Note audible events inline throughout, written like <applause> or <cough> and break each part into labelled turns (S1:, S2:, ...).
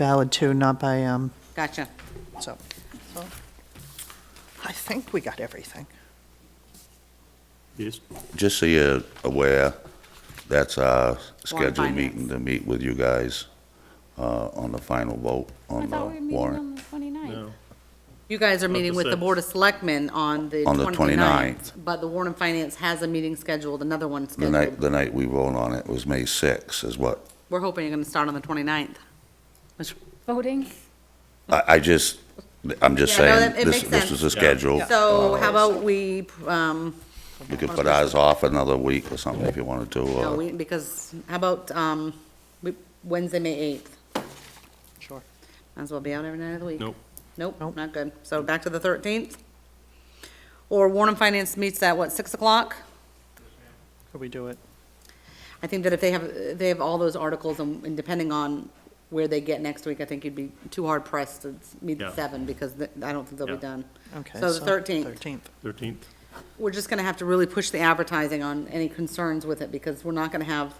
S1: valid too, not by, um,
S2: Gotcha.
S1: so. so I think we got everything.
S3: Yes.
S4: Just so you're aware, that's our
S2: finance.
S4: scheduled meeting to meet with you guys uh, on the final vote
S5: I
S4: on the
S5: thought we were meeting
S4: warrant.
S5: on the 29th.
S3: No.
S2: You guys are meeting with the Board of Selectmen on the 29th.
S4: On the 29th.
S2: But the Warren Finance has a meeting scheduled, another one
S4: The night,
S2: scheduled.
S4: the night we vote on it was May 6th is what,
S2: We're hoping you're going to start on the 29th.
S5: Voting?
S4: I, I just, I'm just
S2: Yeah, no,
S4: saying,
S2: that- it
S4: this,
S2: makes
S4: this is a
S2: sense.
S4: schedule.
S2: So
S4: Uh,
S2: how about we, um,
S4: We could put ours off another week or something if you wanted to.
S2: no,
S4: uh,
S2: we, because, how about, um, we- Wednesday, May 8th?
S1: Sure.
S2: Might as well be out every night of the week.
S3: Nope.
S2: Nope,
S1: Nope.
S2: not good. So back to the 13th? Or Warren Finance meets at, what, 6 o'clock?
S1: Could we do it?
S2: I think that if they have, if they have all those articles and and depending on where they get next week, I think you'd be too hard pressed to meet at
S3: Yeah.
S2: seven because th- I don't think they'll be
S3: Yeah.
S2: done.
S1: Okay.
S2: So the thirteenth,
S1: 13th.
S3: 13th.
S2: we're just gonna have to really push the advertising on any concerns with it because we're not gonna have,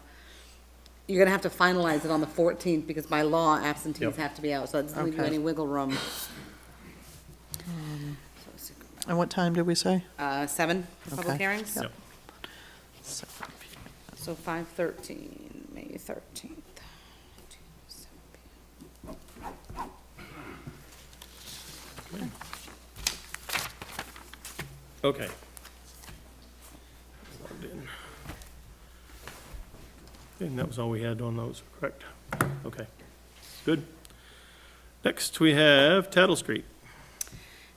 S2: you're gonna have to finalize it on the fourteenth because by law absentees
S3: Yep.
S2: have to be out, so that doesn't leave you
S1: Okay.
S2: any wiggle room.
S1: And what time did we say?
S2: Uh, seven, for public
S1: Okay.
S2: hearings?
S3: Yep.
S1: So-
S2: So five thirteen, May thirteenth.
S3: Okay. And that was all we had on those, correct? Okay, good. Next, we have Tattle Street.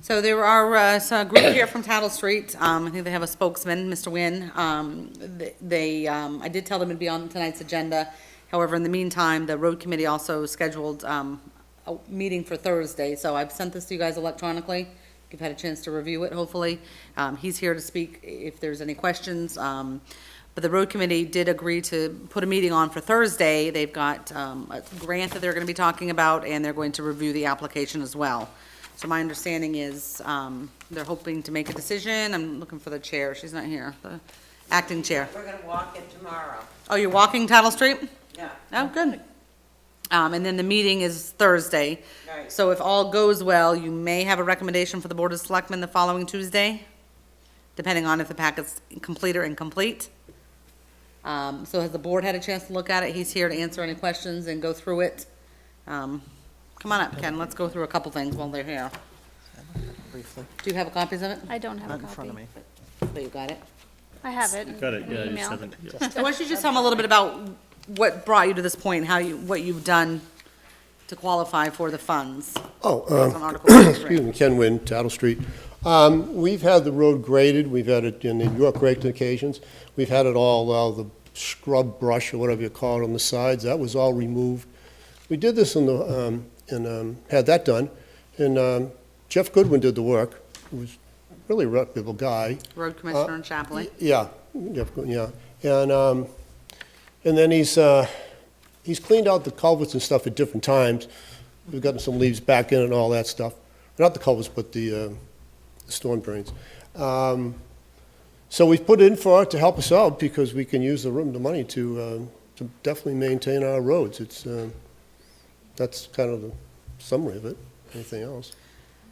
S2: So there are, uh, so a group here from Tattle Street, um, I think they have a spokesman, Mr. Nguyen. Um, th- They, um, I did tell them it'd be on tonight's agenda. However, in the meantime, the road committee also scheduled, um, a meeting for Thursday, so I've sent this to you guys electronically. You've had a chance to review it, hopefully. Um, he's here to speak if there's any questions. Um, but the road committee did agree to put a meeting on for Thursday. They've got, um, a grant that they're gonna be talking about, and they're going to review the application as well. So my understanding is, um, they're hoping to make a decision. I'm looking for the chair. She's not here, the acting chair.
S6: We're gonna walk it tomorrow.
S2: Oh, you're walking Tattle Street?
S6: Yeah.
S2: Oh, good. Um, and then the meeting is Thursday.
S6: Right.
S2: So if all goes well, you may have a recommendation for the Board of Selectmen the following Tuesday, depending on if the packet's complete or incomplete. Um, so has the board had a chance to look at it? He's here to answer any questions and go through it. Um, come on up, Ken, let's go through a couple things while they're here.
S1: Briefly,
S2: Do you have copies of it?
S5: I don't have a
S1: not in
S5: copy.
S1: front of me.
S2: Oh, you got it.
S5: I have it.
S3: Got it,
S5: in
S3: yeah, you
S5: email.
S3: said it, yeah.
S2: So why don't you just tell them a little bit about what brought you to this point, how you, what you've done to qualify for the funds?
S7: Oh, <coughs>
S2: It's on
S7: um,
S2: Article three.
S7: excuse me, Ken Wynn, Tattle Street. Um, We've had the road graded, we've had it in the York graded occasions, we've had it all, well, the scrub brush or whatever you call it on the sides, that was all removed. We did this in the, um, and um, had that done, and um, Jeff Goodwin did the work, who was really a reputable guy.
S2: Road Commissioner and Chaplain.
S7: Yeah, Jeff Goodwin, yeah. And, um, and then he's, uh, he's cleaned out the culverts and stuff at different times. We've gotten some leaves back in and all that stuff. Not the culverts, but the, uh, the storm drains. Um, so we've put in for it to help us out because we can use the room, the money to, uh, to definitely maintain our roads. It's, uh, that's kind of the summary of it. Anything else?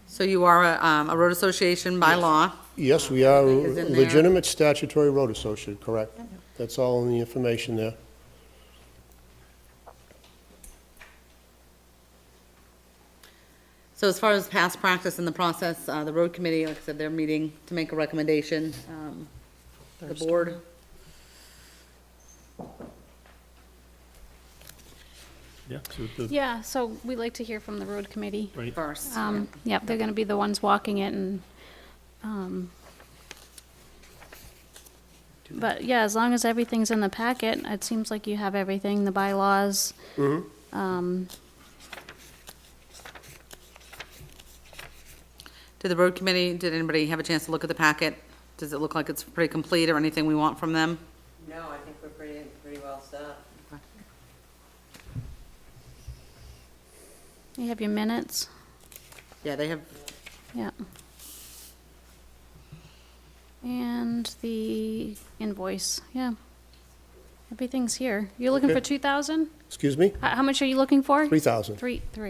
S2: So you are a, um, a road association by law.
S7: Yes, we are a
S2: Is in there.
S7: legitimate statutory road associate, correct? That's all in the information there.
S2: So as far as past practice in the process, uh, the road committee, like I said, they're meeting to make a recommendation, um, the
S1: Thursday.
S2: board.
S3: Yeah, so the,
S5: Yeah, so we like to hear from the road committee.
S3: right,
S2: First.
S5: Um, yeah, they're gonna be the ones walking it and, um, but yeah, as long as everything's in the packet, it seems like you have everything, the bylaws.
S3: Mm-hmm.
S5: Um,
S2: Did the road committee, did anybody have a chance to look at the packet? Does it look like it's pretty complete or anything we want from them?
S6: No, I think we're pretty, pretty well set up.
S5: you have your minutes,
S2: Yeah, they have,
S5: yeah. And the invoice, yeah. Everything's here. You're looking for
S7: Okay.
S5: two thousand?
S7: Excuse me?
S5: How, how much are you looking for?
S7: Three thousand.
S5: Three, three.